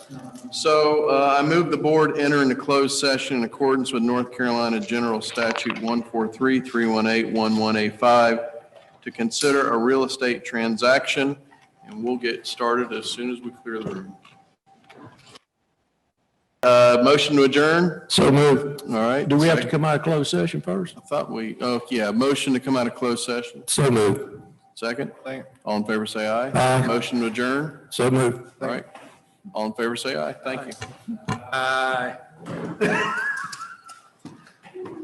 So uh, I move the board enter into closed session in accordance with North Carolina General Statute 143-318-1185 to consider a real estate transaction, and we'll get started as soon as we clear the room. Uh, Motion to adjourn? So moved. All right. Do we have to come out of closed session first? I thought we, oh, yeah, motion to come out of closed session. So moved. Second? All in favor, say aye. Aye. Motion to adjourn? So moved. All right. All in favor, say aye. Thank you. Aye.